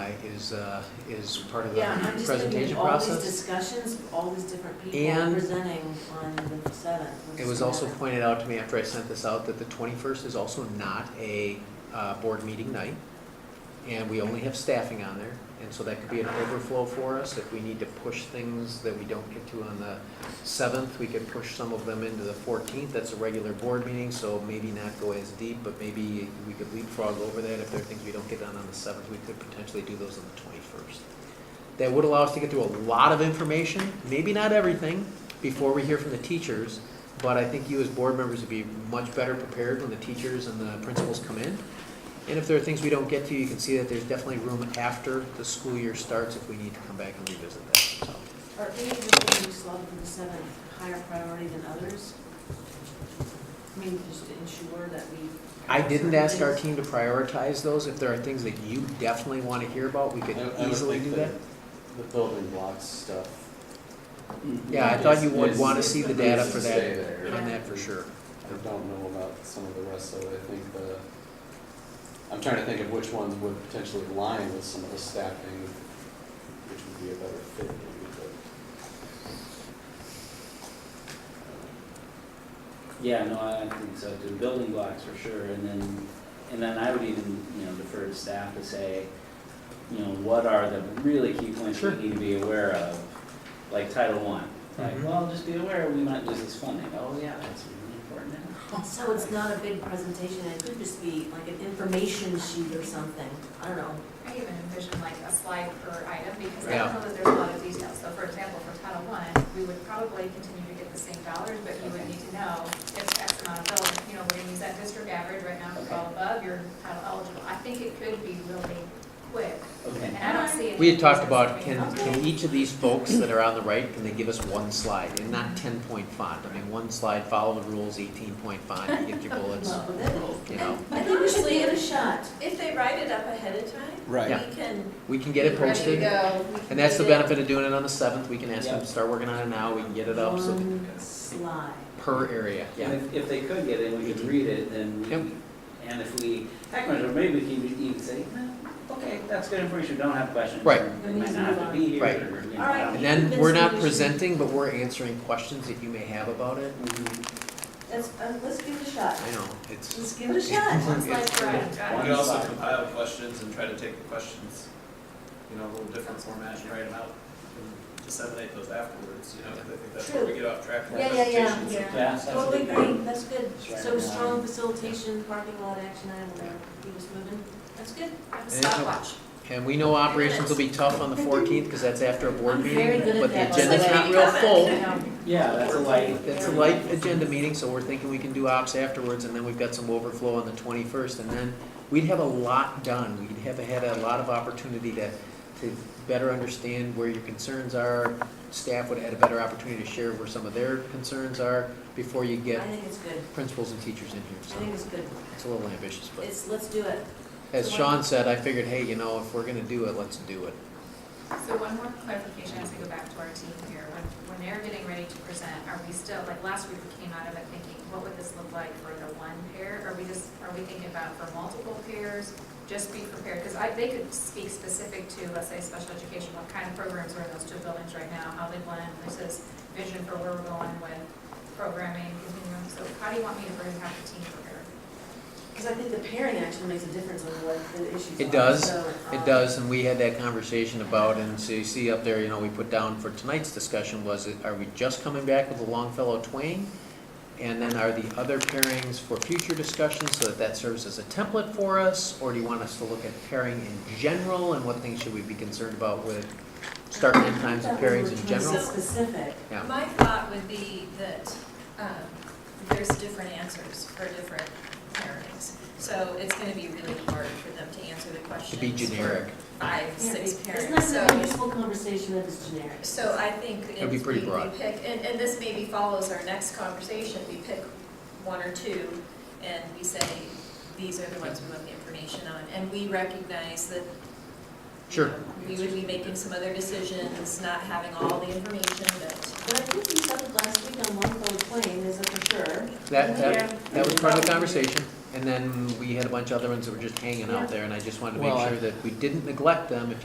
by is, uh, is part of the Yeah, and I'm just presentation thinking, all these process. discussions, all these different people And- presenting on the seventh. It was also pointed out to me after I sent this out that the 21st is also not a uh, board meeting night. And we only have staffing on there, and so that could be an overflow for us. If we need to push things that we don't get to on the 7th, we could push some of them into the 14th. That's a regular board meeting, so maybe not go as deep, but maybe we could leapfrog over that. If there are things we don't get done on the 7th, we could potentially do those on the 21st. That would allow us to get through a lot of information, maybe not everything, before we hear from the teachers. But I think you as board members would be much better prepared when the teachers and the principals come in. And if there are things we don't get to, you can see that there's definitely room after the school year starts if we need to come back and revisit that. So, Are any of the things slotted for the seventh higher priority than others? I mean, just to ensure that we. I didn't ask our team to prioritize those. If there are things that you definitely want to hear about, we could I- I would easily think do that. the- The building blocks stuff. Yeah, I thought you is- would is- want to see the data for is that, stay there. on that for sure. I don't know about some of the rest of it, I think the, I'm trying to think of which ones would potentially align with some of the staffing, which would be a better fit maybe, but. Yeah, no, I I think so too, building blocks for sure, and then, and then I would even, you know, defer to staff to say, you know, what are the really key points we Sure. need to be aware of, like Title One. Like, Mhm. well, just be aware, we might lose this funding, oh yeah, that's really important now. So it's not a big presentation, it could just be like an information sheet or something, I don't know. I even envision like a slide per item, because I Yeah. know that there's a lot of details. So for example, for Title One, we would probably continue to get the same dollars, but you would need to know if X amount of dollars, you know, we're gonna use that district average right now, if it's all above, you're title eligible. I think it could be really quick, and Okay, I don't see. it We had talked as about, being- can, can each of these folks that are on the right, can they give us one slide and not ten point font? I mean, one slide, follow the rules, eighteen point font, you get your bullets, Well, then, you know. I think we should give it a shot. If they write it up ahead of time, Right. Yeah. we can. We can get it ready to posted, go. We can and that's the get it. benefit of doing it on the seventh, we can ask them to Yeah. start working on it now, we can get it up, so, One slide. per area, and yeah. if, if they could get it, we could read it, then Yep. we, and if we, heck, or maybe we can even say, "Eh, okay, that's good information, don't have questions. Right. They might not have to be here, Right. or, you know. All right. And then, we're not presenting, but we're answering questions that you may have about it, Mhm. That's, uh, let's give it a shot. I know, it's. Let's give it a shot. One slide per item, got it. We could also compile questions and try to take the questions, you know, a little different format and write them out and disseminate those afterwards, you know, 'cause I think that's where we get off track from our Yeah, yeah, yeah, presentations. yeah. Yes, that's Totally a good agree, that's good. That's right. So strong facilitation, parking lot action item, whatever, we just moving, that's good. Have a Stopwatch. And we know operations will be tough on the fourteenth, because that's after a board I'm very meeting, good at but the that. agenda's Let's not make real comments. full. Yeah, that's a light. It's a light agenda meeting, so we're thinking we can do ops afterwards, and then we've got some overflow on the twenty-first, and then we'd have a lot done. We'd have had a lot of opportunity to, to better understand where your concerns are. Staff would have had a better opportunity to share where some of their concerns are before you I get think it's good, principals and teachers in here, I so think it's good. it's a little ambitious, but It's, let's do it. as Sean said, I figured, hey, you know, if we're gonna do it, let's do it. So one more clarification as we go back to our team here. When, when they're getting ready to present, are we still, like last week we came out of it thinking, what would this look like for the one pair? Are we just, are we thinking about for multiple pairs? Just be prepared, because I, they could speak specific to, let's say, special education, what kind of programs are in those two buildings right now, how they blend, this is vision for where we're going with programming, continuum. So how do you want me to bring half the team prepared? Because I think the pairing actually makes a difference on what the issues are. It does. So, um, It does, and we had that conversation about, and so you see up there, you know, we put down for tonight's discussion was, are we just coming back with the Longfellow Twain? And then are the other pairings for future discussion, so that that serves as a template for us? Or do you want us to look at pairing in general, and what things should we be concerned about with start and end times of That way we're pairings in trying to be general? Specific. Yeah. My thought would be that um, there's different answers for different pairings. So it's going to be really hard for them to answer the To questions. be for generic. Five, six It's pairings. not really a So, useful conversation that is generic. so I think It'd if be we pretty we broad. pick, and, and this maybe follows our next conversation, we pick one or two and we say, these are the ones we want the information on. And we recognize that Sure. we would be making some other decisions, not having all the information, but But I think we settled last week on Longfellow Twain, is it for sure? That, that, that was part of the conversation, and then we had a bunch of other ones that were just hanging out there, and I just wanted to make Well, I- sure that we didn't neglect them if